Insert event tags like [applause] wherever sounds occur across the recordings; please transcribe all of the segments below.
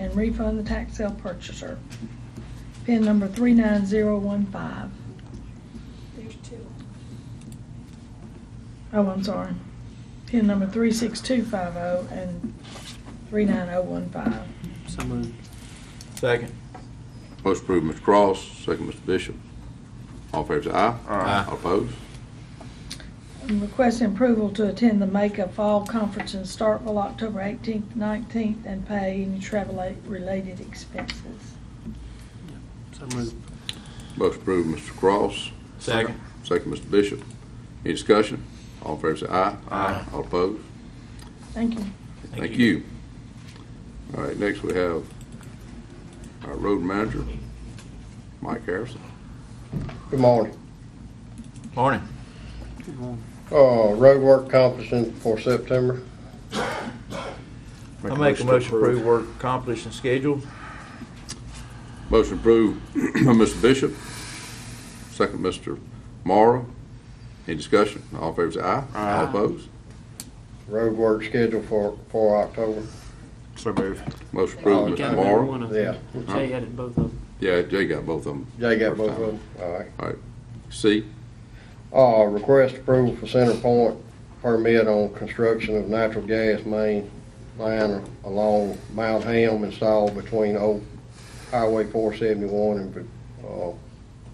and refund the tax sale purchaser. Pin number 39015. There's two. Oh, I'm sorry. Pin number 36250 and 39015. So moved. Second. Most approved, Mr. Cross, second, Mr. Bishop. All favors say aye. Aye. All opposed? And Requesting approval to attend the Makeup Fall Conference in Starkville, October 18th, 19th, and pay any travel-related expenses. So moved. Most approved, Mr. Cross. Second. Second, Mr. Bishop. Any discussion? All in favor say aye. Aye. All opposed? Thank you. Thank Thank you. you. All right, next we have our road manager, Mike Harrison. Good morning. Morning. Good morning. Uh, road work accomplishing for September. I make a motion to approve work accomplished and scheduled. Motion approved [clears throat] by Mr. Bishop, second Mr. Morrow. Any discussion? All in favor say aye. All opposed? Road work scheduled for, for October. So moved. Motion Oh, approved, you Mr. Got Morrow. one of them. Yeah. Jay added both of them. Yeah, Jay got both of them. Jay got both of them. All right. All right. C, Uh, request approval for Center Point permit on construction of natural gas main line along Mount Ham installed between old Highway four seventy-one and, uh,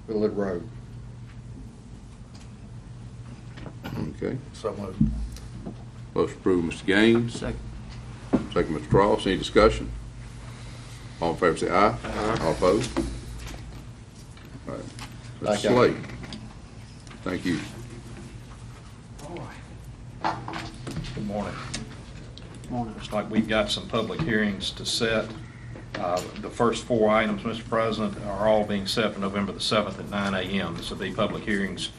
Village Road. okay. So moved. Motion approved, Mr. Gaines, Second. second Mr. Cross. Any discussion? All in favor say aye. All opposed? All right. Mr. Thank you. Slate. Thank you. Good morning. Morning. Looks like we've got some public hearings to set. Uh, The first four items, Mr. President, are all being set for November the 7th at 9 a.m. This will be public hearings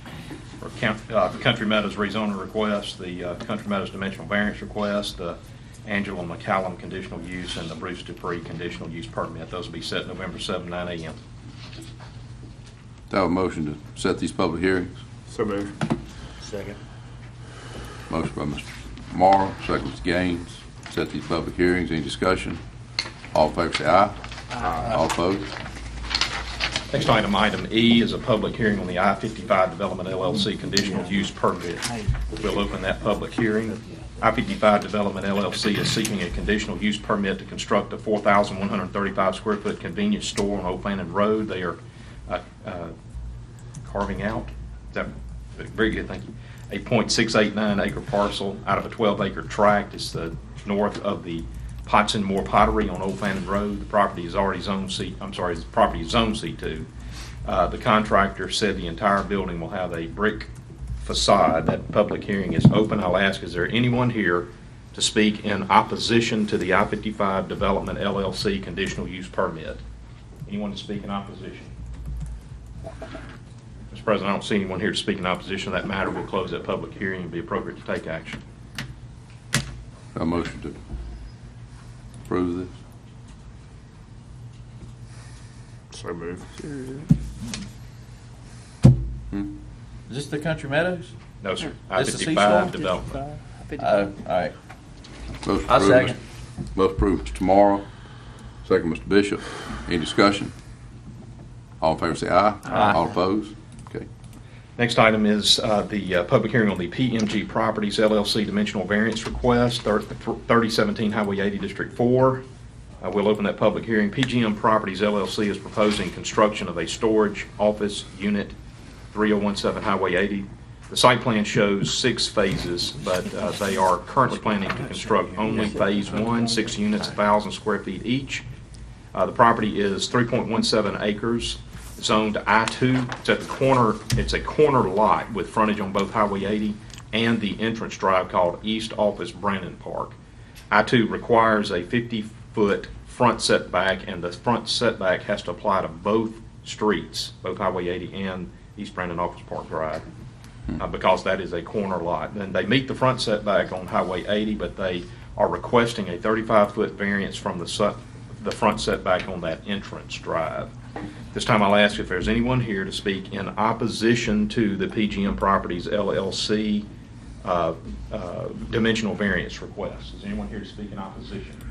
for Coun- uh, Country Meadows rezoning request, the uh, Country Meadows dimensional variance request, the Angela McCallum conditional use, and the Bruce Dupree conditional use permit. Those will be set November 7, 9 a.m. Do I have a motion to set these public hearings? So moved. Second. Motion by Mr. Morrow, second Mr. Gaines, set these public hearings, any discussion? All in favor say aye. Aye. All opposed? Next item, item E, is a public hearing on the I-55 Development LLC conditional use permit. We'll open that public hearing. I-55 Development LLC is seeking a conditional use permit to construct a 4,135 square foot convenience store on Old Fannin Road. They are uh, uh, carving out, is that, very good, thank you, a .689 acre parcel out of a 12 acre tract. It's the north of the Potts and Moore Pottery on Old Fannin Road. The property is already zoned C, I'm sorry, the property is zoned C2. Uh, The contractor said the entire building will have a brick facade. That public hearing is open. I'll ask, is there anyone here to speak in opposition to the I-55 Development LLC conditional use permit? Anyone to speak in opposition? Mr. President, I don't see anyone here to speak in opposition to that matter. We'll close that public hearing. It'd be appropriate to take action. A motion to approve this? So moved. Hmm? Is this the Country Meadows? No, sir. This is I-55 Seashore? development. Oh, all right. Motion I approved, second. Mr. Motion approved, Mr. Morrow, second Mr. Bishop, any discussion? All in favor say aye. Aye. All opposed? Okay. Next item is uh, the uh, public hearing on the PMG Properties LLC dimensional variance request, thir- 3017 Highway 80, District 4. Uh, We'll open that public hearing. PGM Properties LLC is proposing construction of a storage office unit, 3017 Highway 80. The site plan shows six phases, but uh, they are currently planning to construct only Phase 1, six units, 1,000 square feet each. Uh, The property is 3.17 acres, zoned I-2. It's at the corner, it's a corner lot with frontage on both Highway 80 and the entrance drive called East Office Brandon Park. I-2 requires a 50-foot front setback, and the front setback has to apply to both streets, both Highway 80 and East Brandon Office Park Drive, uh, because that is a corner lot. And they meet the front setback on Highway 80, but they are requesting a 35-foot variance from the set, the front setback on that entrance drive. This time I'll ask if there's anyone here to speak in opposition to the PGM Properties LLC uh, uh, dimensional variance request. Is anyone here to speak in opposition?